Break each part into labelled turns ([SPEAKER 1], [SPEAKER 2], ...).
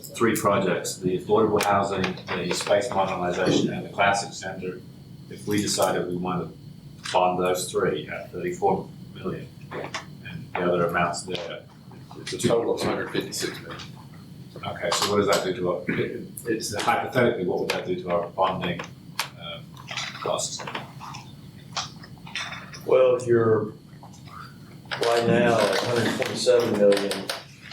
[SPEAKER 1] three projects, the affordable housing, the space modernization, and the classic center. If we decided we wanted to bond those three at thirty-four million, and the other amounts there.
[SPEAKER 2] It's a total of hundred fifty-six million.
[SPEAKER 1] Okay, so what does that do to our, it- it's hypothetically, what would that do to our bonding, um, costs?
[SPEAKER 3] Well, you're, right now, at hundred twenty-seven million,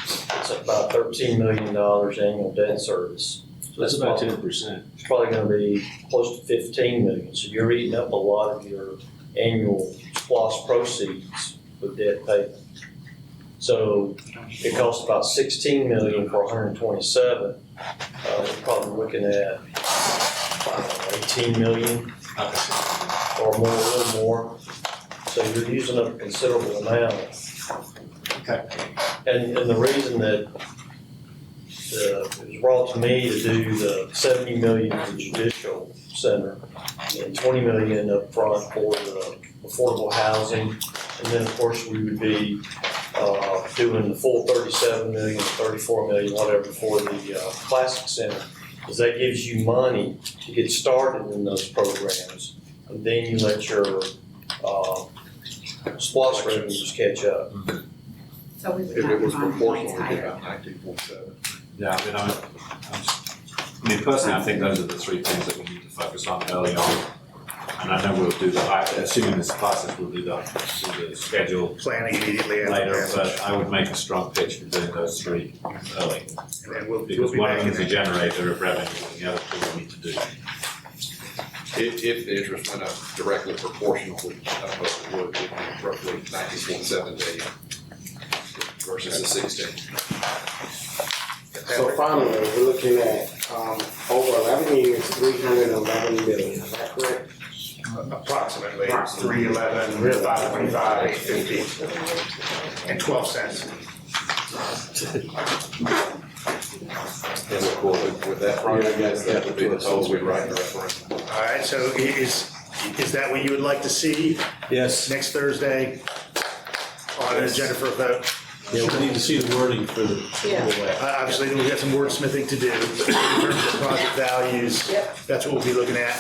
[SPEAKER 3] it's about thirteen million dollars annual debt service. So it's probably-
[SPEAKER 1] percent.
[SPEAKER 3] It's probably gonna be close to fifteen million, so you're eating up a lot of your annual SPOS proceeds with debt payment. So it costs about sixteen million for hundred and twenty-seven, uh, we're probably looking at, I don't know, eighteen million or more, a little more. So you're using up a considerable amount.
[SPEAKER 1] Okay.
[SPEAKER 3] And, and the reason that, uh, it was brought to me to do the seventy million for the judicial center and twenty million upfront for the affordable housing. And then, of course, we would be, uh, doing the full thirty-seven million, thirty-four million, whatever, for the, uh, classic center. Because that gives you money to get started in those programs and then you let your, uh, SPOS revenues catch up.
[SPEAKER 4] So we
[SPEAKER 2] If
[SPEAKER 4] would
[SPEAKER 2] it
[SPEAKER 4] have
[SPEAKER 2] was
[SPEAKER 4] to find
[SPEAKER 2] proportional,
[SPEAKER 4] points
[SPEAKER 2] it'd be
[SPEAKER 4] higher.
[SPEAKER 2] about nineteen point seven.
[SPEAKER 1] Yeah, I mean, I'm, I'm just, I mean, personally, I think those are the three things that we need to focus on early on. And I know we'll do the, I, assuming this passes, we'll do the, do the schedule
[SPEAKER 5] planning immediately after
[SPEAKER 1] later, but
[SPEAKER 5] passage.
[SPEAKER 1] I would make a strong pitch for doing those three early.
[SPEAKER 5] And then we'll, we'll
[SPEAKER 1] Because
[SPEAKER 5] be
[SPEAKER 1] one of
[SPEAKER 5] back in
[SPEAKER 1] them's a
[SPEAKER 5] it.
[SPEAKER 1] generator of revenue, and the other two we need to do.
[SPEAKER 2] If, if the interest went up directly proportional, which I don't know if it would, it'd be roughly nineteen point seven million versus the sixteen.
[SPEAKER 6] So finally, we're looking at, um, over eleven years, three hundred and eleven million, is that correct?
[SPEAKER 5] Approximately three eleven, five twenty-five, eight fifty, and twelve cents.
[SPEAKER 2] As a quarter. With that project, yes, that would be the total we write in the referendum.
[SPEAKER 5] All right, so i- is, is that what you would like to see
[SPEAKER 7] Yes,
[SPEAKER 5] next Thursday on the agenda for a vote?
[SPEAKER 7] yeah, we need to see the wording for the.
[SPEAKER 4] Yeah.
[SPEAKER 5] Uh, Obviously, we've got some wordsmithing to do in terms of project values.
[SPEAKER 4] Yep.
[SPEAKER 5] That's what we'll be looking at,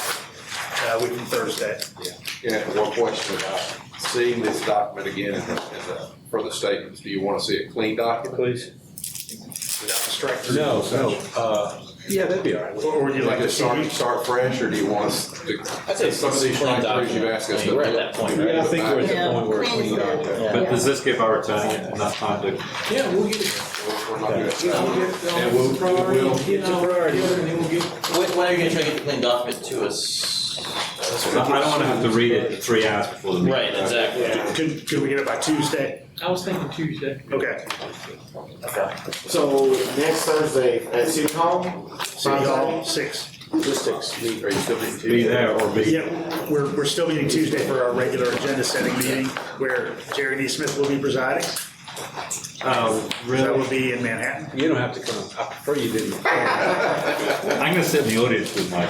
[SPEAKER 5] uh, week from Thursday.
[SPEAKER 2] Yeah, one question about seeing this document again in the, in the, for the statements, do you want to see a clean document?
[SPEAKER 7] Please.
[SPEAKER 5] Without the strike through.
[SPEAKER 7] No, no, uh, yeah, that'd be all right.
[SPEAKER 5] Or or would you like to see?
[SPEAKER 2] Start, start fresh, or do you want us to?
[SPEAKER 8] I'd say
[SPEAKER 2] Some of these
[SPEAKER 8] clean
[SPEAKER 2] factors you've asked us
[SPEAKER 8] document. I mean,
[SPEAKER 2] to.
[SPEAKER 8] We're at that point, right?
[SPEAKER 7] Yeah, I think we're at
[SPEAKER 4] Yeah,
[SPEAKER 7] the point where
[SPEAKER 4] clean is
[SPEAKER 7] we are.
[SPEAKER 4] good.
[SPEAKER 7] yeah.
[SPEAKER 1] But does this give our attorney enough time to
[SPEAKER 7] Yeah, we'll get it.
[SPEAKER 2] We're- we're not doing that.
[SPEAKER 7] Yeah,
[SPEAKER 2] And we'll,
[SPEAKER 7] It's a priority,
[SPEAKER 2] we'll,
[SPEAKER 7] you know, and then we'll get.
[SPEAKER 8] When, when are you gonna try to get the clean document to us?
[SPEAKER 1] So I don't wanna have to read it three hours before the meeting.
[SPEAKER 8] Right, exactly.
[SPEAKER 5] Could, could we get it by Tuesday?
[SPEAKER 7] I was thinking Tuesday.
[SPEAKER 5] Okay.
[SPEAKER 6] So next Thursday at City Hall,
[SPEAKER 5] City Hall, six.
[SPEAKER 6] logistics, we
[SPEAKER 2] are you still being
[SPEAKER 1] Be there or be.
[SPEAKER 5] Yeah, we're, we're still meeting Tuesday for our regular agenda setting meeting where Jerry Neesmith will be presiding. Uh,
[SPEAKER 1] Oh,
[SPEAKER 5] That
[SPEAKER 1] really?
[SPEAKER 5] will be in Manhattan.
[SPEAKER 7] You don't have to come, I prefer you didn't.
[SPEAKER 1] I'm gonna sit in the audience with my.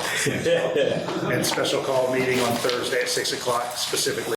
[SPEAKER 5] And special call meeting on Thursday at six o'clock specifically